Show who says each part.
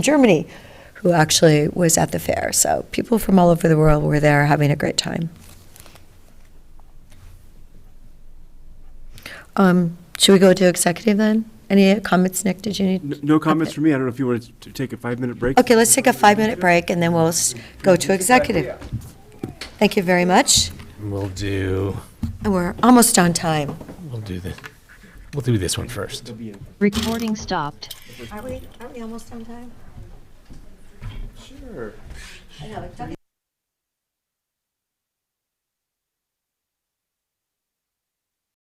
Speaker 1: Germany who actually was at the fair. So people from all over the world were there having a great time. Um, should we go to executive then? Any comments, Nick? Did you
Speaker 2: N-
Speaker 1: need?
Speaker 2: No comments from me. I don't know if you wanted to take a five-minute break.
Speaker 1: Okay, let's take a five-minute break and then we'll s- go to executive. Thank you very much.
Speaker 3: We'll do,
Speaker 1: And we're almost on time.
Speaker 3: we'll do this, we'll do this one first.
Speaker 4: Recording stopped.
Speaker 1: Are we, aren't we almost on time? Sure.